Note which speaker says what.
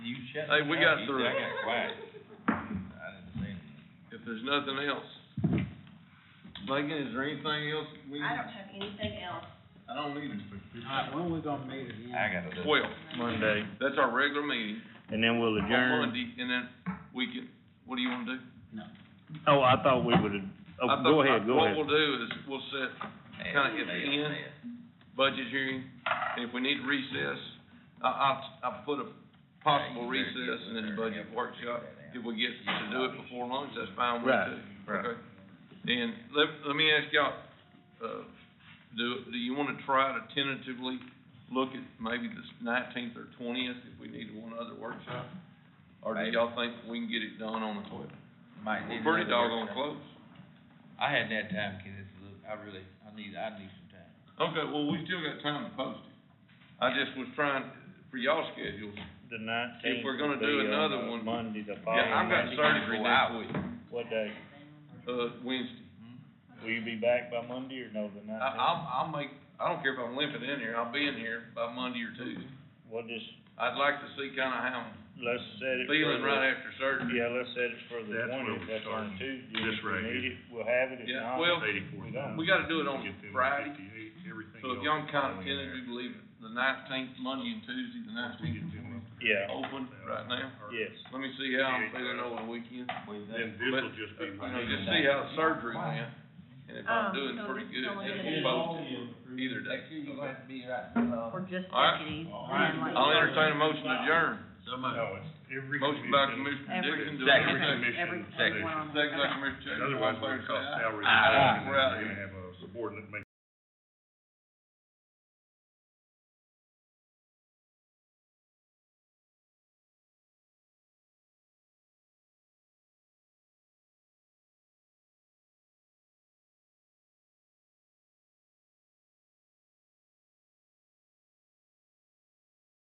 Speaker 1: shut
Speaker 2: Hey,
Speaker 1: me
Speaker 2: we
Speaker 1: up,
Speaker 2: got
Speaker 1: you-
Speaker 2: through
Speaker 1: I
Speaker 2: it.
Speaker 1: got quiet. I didn't say anything.
Speaker 2: if there's nothing else. Megan, is there anything else we,
Speaker 3: I don't have anything else.
Speaker 2: I don't need it.
Speaker 4: Alright, when we gonna meet
Speaker 1: I
Speaker 4: again?
Speaker 1: got a little.
Speaker 2: Twelve,
Speaker 5: Monday,
Speaker 2: that's our regular meeting
Speaker 5: and then we'll
Speaker 2: on
Speaker 5: adjourn.
Speaker 2: Monday, and then we can, what do you wanna do?
Speaker 5: Oh, I thought we would,
Speaker 2: I
Speaker 5: oh,
Speaker 2: thought-
Speaker 5: go
Speaker 2: I-
Speaker 5: ahead, go
Speaker 2: What
Speaker 5: ahead.
Speaker 2: we'll do is, we'll set Kinda at the end. budget hearing, and if we need recess, I, I, I put a possible recess and then a budget workshop. If we get to do it before lunch, that's fine with
Speaker 5: Right,
Speaker 2: us.
Speaker 5: right.
Speaker 2: Okay. And let, let me ask y'all, uh, do, do you wanna try to tentatively look at maybe the nineteenth or twentieth if we need one other workshop? Or do
Speaker 1: Maybe.
Speaker 2: y'all think we can get it done on the twelfth?
Speaker 1: Might need
Speaker 2: We're pretty
Speaker 1: another
Speaker 2: doggone
Speaker 1: workshop.
Speaker 2: close.
Speaker 1: I had that time, cause it's, a little- I really, I need, I need some time.
Speaker 2: Okay, well, we still got time to post it. I just was trying, for y'all schedules,
Speaker 5: The nineteenth. uh,
Speaker 2: If we're gonna do another one-
Speaker 5: Monday, the following.
Speaker 2: Yeah, I've got
Speaker 5: Monday.
Speaker 2: surgery next week,
Speaker 5: What day?
Speaker 2: uh, Wednesday.
Speaker 5: Will you be back by Monday or no, the
Speaker 2: I,
Speaker 5: nineteenth?
Speaker 2: I'll, I'll make, I don't care if I'm limping in here, I'll be in here by Monday or Tuesday.
Speaker 5: We'll just,
Speaker 2: I'd like to see kinda how I'm
Speaker 5: let's set it. for
Speaker 2: feeling
Speaker 5: the-
Speaker 2: right after surgery.
Speaker 5: Yeah, let's set it for the
Speaker 6: That's where
Speaker 5: twentieth,
Speaker 6: we're
Speaker 5: that's on
Speaker 6: starting.
Speaker 5: Tuesday.
Speaker 6: This
Speaker 5: If we
Speaker 6: right
Speaker 5: need
Speaker 6: here.
Speaker 5: it, we'll have it, if
Speaker 2: Yeah,
Speaker 5: not.
Speaker 2: well,
Speaker 6: Eighty-four thousand.
Speaker 2: we gotta do it on
Speaker 6: Get them
Speaker 2: Friday.
Speaker 6: 58, everything
Speaker 2: So if
Speaker 6: else
Speaker 2: y'all can
Speaker 6: is
Speaker 2: kinda
Speaker 6: falling in there.
Speaker 2: tentatively believe the nineteenth, Monday and Tuesday, the
Speaker 6: Once we
Speaker 2: nineteenth,
Speaker 6: get them up
Speaker 5: Yeah,
Speaker 2: open right now.
Speaker 6: there.
Speaker 5: yes.
Speaker 2: Let me see how I'm feeling over the weekend,
Speaker 6: Then this
Speaker 2: But,
Speaker 6: will just be.
Speaker 2: you
Speaker 6: my-
Speaker 2: know, just see how the surgery went, and if I'm
Speaker 3: Um,
Speaker 2: doing
Speaker 3: so
Speaker 2: pretty
Speaker 3: this is
Speaker 2: good,
Speaker 3: only
Speaker 2: then
Speaker 3: gonna be-
Speaker 2: we'll post it either day. Okay.
Speaker 1: be right, uh.
Speaker 3: We're just
Speaker 2: All right.
Speaker 3: deputies. and
Speaker 6: All
Speaker 3: like-
Speaker 6: right.
Speaker 2: I'll entertain a motion to adjourn.
Speaker 6: No, it's every.
Speaker 2: Motion by
Speaker 6: commission,
Speaker 2: Commissioner
Speaker 3: Every-
Speaker 2: Dixon, do I
Speaker 6: Every
Speaker 2: hear a second?
Speaker 6: commission,
Speaker 3: Every,
Speaker 6: position.
Speaker 3: everyone on.
Speaker 2: Second by
Speaker 3: Okay.
Speaker 2: Commissioner Chambers, all
Speaker 6: Otherwise,
Speaker 2: in
Speaker 6: we're
Speaker 2: favor,
Speaker 6: gonna
Speaker 2: say
Speaker 6: cost
Speaker 2: aye.
Speaker 6: salary.
Speaker 2: Aye.
Speaker 6: We're gonna have a subordinate make